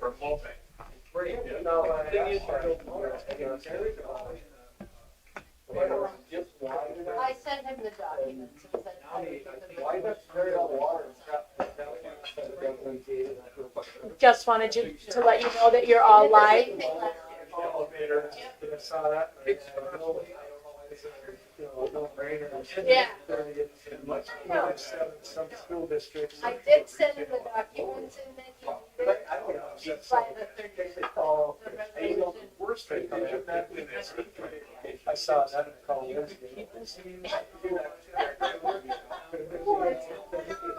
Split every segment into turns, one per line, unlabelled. Or multi.
Right,
Yeah.
no, I.
Thing is, I don't
I sent him the documents. It was that-
Why that's very hot water, it's got- it's got-
Just wanted you to let you know that you're all live.
Elevator, I saw that. and I-
It's-
I don't know, it's a, you know, a no-brainer.
Yeah.
And much- much said in some school districts.
I did send him the documents and then he read
But I don't know, it's just-
by the thirty.
They call-
The
I don't know,
resolution.
the worst they come after is- I saw that in the call yesterday.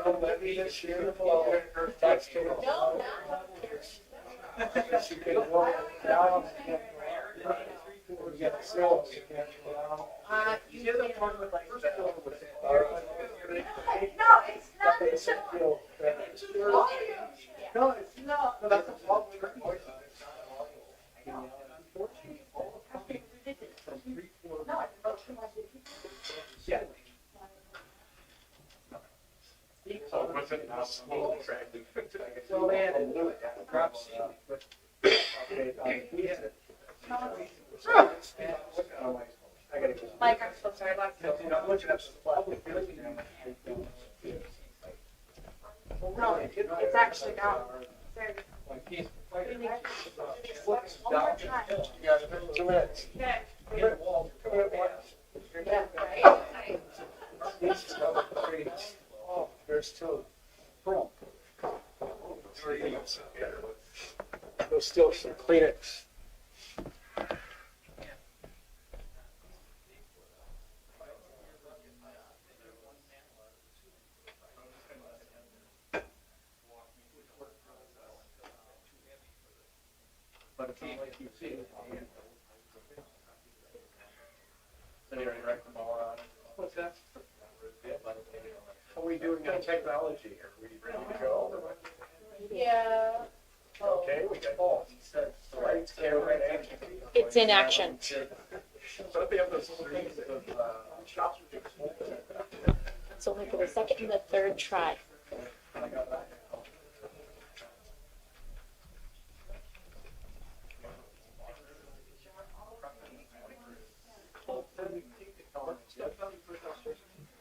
Don't let me just share the floor. That's too much.
No, no.
She could walk down and we got sales, we got, well,
Uh,
You did the one with like.
No, it's not
they
the
said, you know, that- No, it's
No.
No, that's a problem.
No.
Yeah.
So it wasn't a small track.
So man, and do it. Crop seed. I gotta go.
Mike, I'm so sorry.
You know, I'm looking up supply.
No, it's actually down. Sorry.
Yeah, two minutes. Two minutes.
Yeah, right?
This is number three. Oh, there's two. Boom. There's still some Kleenex.
But it's not like you see it. They already wrecked them all out.
What's that?
Yeah, but they-
How are we doing on technology here? We ready to go?
Yeah.
Okay, we got all. The lights, camera, and.
It's in action.
So they have those things of, uh, shops.
It's only for the second and the third try.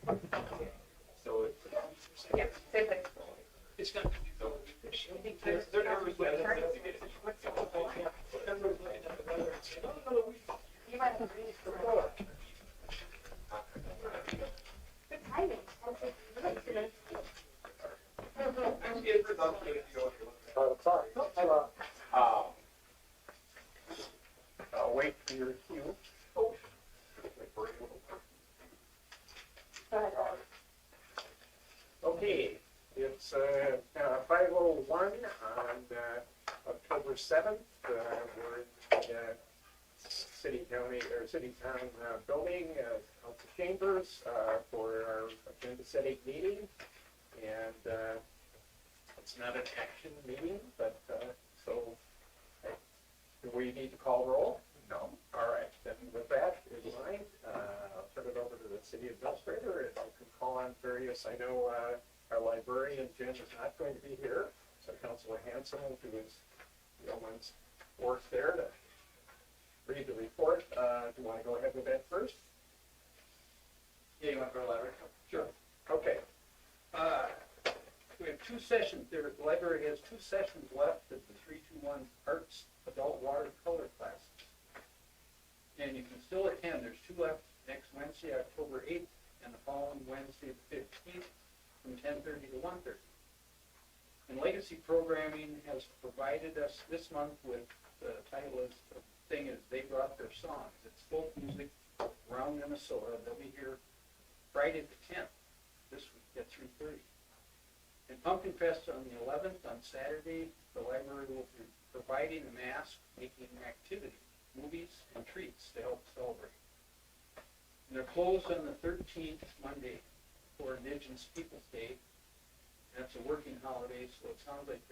So it. It's gonna. They're, they're never really-
You might have Good timing.
Uh, sorry. Uh, I'll wait for your cue. Okay, it's, uh, five oh one on, uh, October seventh, uh, we're in, the, uh, city county, or city town, uh, building, uh, council chambers, uh, for our agenda setting meeting. And, uh, it's not an action meeting, but, uh, so, uh, do we need to call roll? No. All right, then with that in mind, uh, I'll turn it over to the city administrator, and I can call on various, I know, uh, our librarian, Jen, is not going to be here, so Councilor Hanson will do his yeoman's work there to read the report. Uh, do you want to go ahead with that first?
Yeah, you want to go to the library?
Sure. Okay.
Uh, We have two sessions, there, the library has two sessions left of the three-two-one arts adult watercolor classes. And you can still attend, there's two left next Wednesday, October eighth, and the following Wednesday, the fifteenth, from ten-thirty to one-thirty. And Legacy Programming has provided us this month with, the title is, the thing is, they brought their songs, it's folk music around Minnesota, they'll be here Friday the tenth this week at three thirty. And Pumpkin Fest on the eleventh, on Saturday, the library will be providing a mask, making activity, movies and treats to help celebrate. And they're closed on the thirteenth, Monday, for Indigenous Peoples' Day. That's a working holiday, so it sounds like